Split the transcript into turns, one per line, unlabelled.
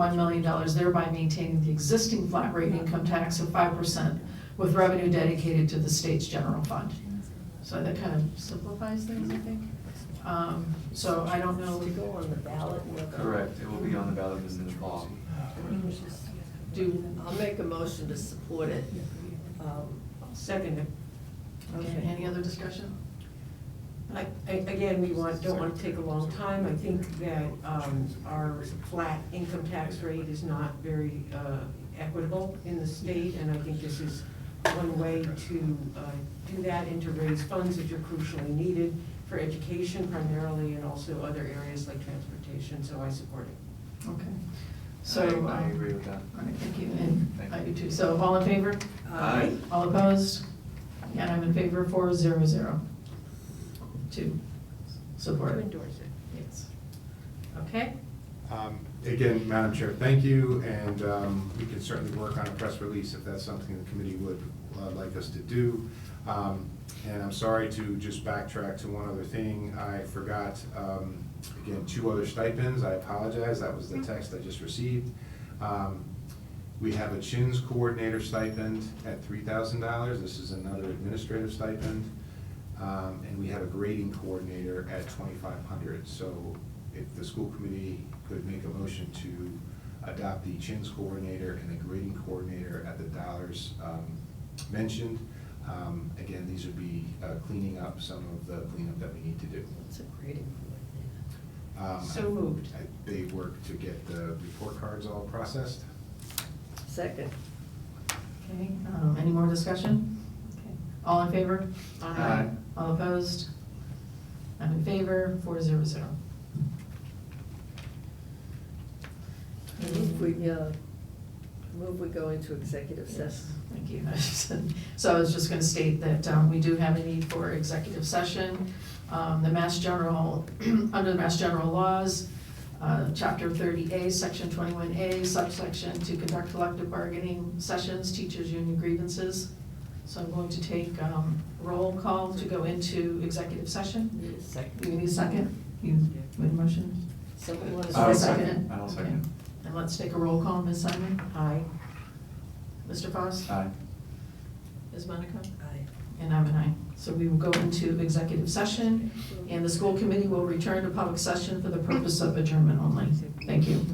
$1 million, thereby maintaining the existing flat rate income tax of 5% with revenue dedicated to the state's general fund. So that kind of simplifies things, I think. Um, So I don't know,
To go on the ballot with.
Correct, it will be on the ballot as a law.
do,
I'll make a motion to support it. Um,
Second, it.
okay, any other discussion?
I- I- again, we want, don't want to take a long time. I think that um, our flat income tax rate is not very uh, equitable in the state, and I think this is one way to uh, do that and to raise funds that are crucially needed for education primarily and also other areas like transportation, so I support it.
Okay. So.
I- I
um,
agree with that.
All right, thank you, and
Thank
I
you.
do too. So all in favor?
Aye.
All opposed? And I'm in favor, four zero zero. Two, support
To
it,
endorse it.
yes. Okay?
Um, Again, Madam Chair, thank you, and um, we can certainly work on a press release if that's something the committee would uh, like us to do. Um, And I'm sorry to just backtrack to one other thing. I forgot, um, again, two other stipends. I apologize, that was the text I just received. Um, We have a CHINS coordinator stipend at $3,000. This is another administrative stipend. Um, and we have a grading coordinator at twenty-five hundred, so if the school committee could make a motion to adopt the CHINS coordinator and the grading coordinator at the dollars, um, mentioned, um, again, these would be, uh, cleaning up some of the cleanup that we need to do.
It's a grading coordinator.
Um,
So moved.
I- They work to get the report cards all processed.
Second.
Okay, um, any more discussion? Okay. All in favor?
Aye.
All opposed? I'm in favor, four zero zero.
I move we, uh, move we go into executive session.
Thank you. So I was just gonna state that um, we do have a need for executive session. Um, The Mass General, under the Mass General laws, uh, Chapter 30A, Section 21A, subsection, to conduct collective bargaining sessions, teachers' union grievances. So I'm going to take um, roll call to go into executive session.
Need a second.
You need a second? You made a motion?
Someone want
I'll
to
I'll
second.
second?
it.
I'll
Okay.
second.
And let's take a roll call, Ms. Simon?
Aye.
Mr. Foss?
Aye.
Ms. Monica?
Aye.
And I'm an aye. So we will go into executive session, and the school committee will return to public session for the purpose of adjournment only. Thank you.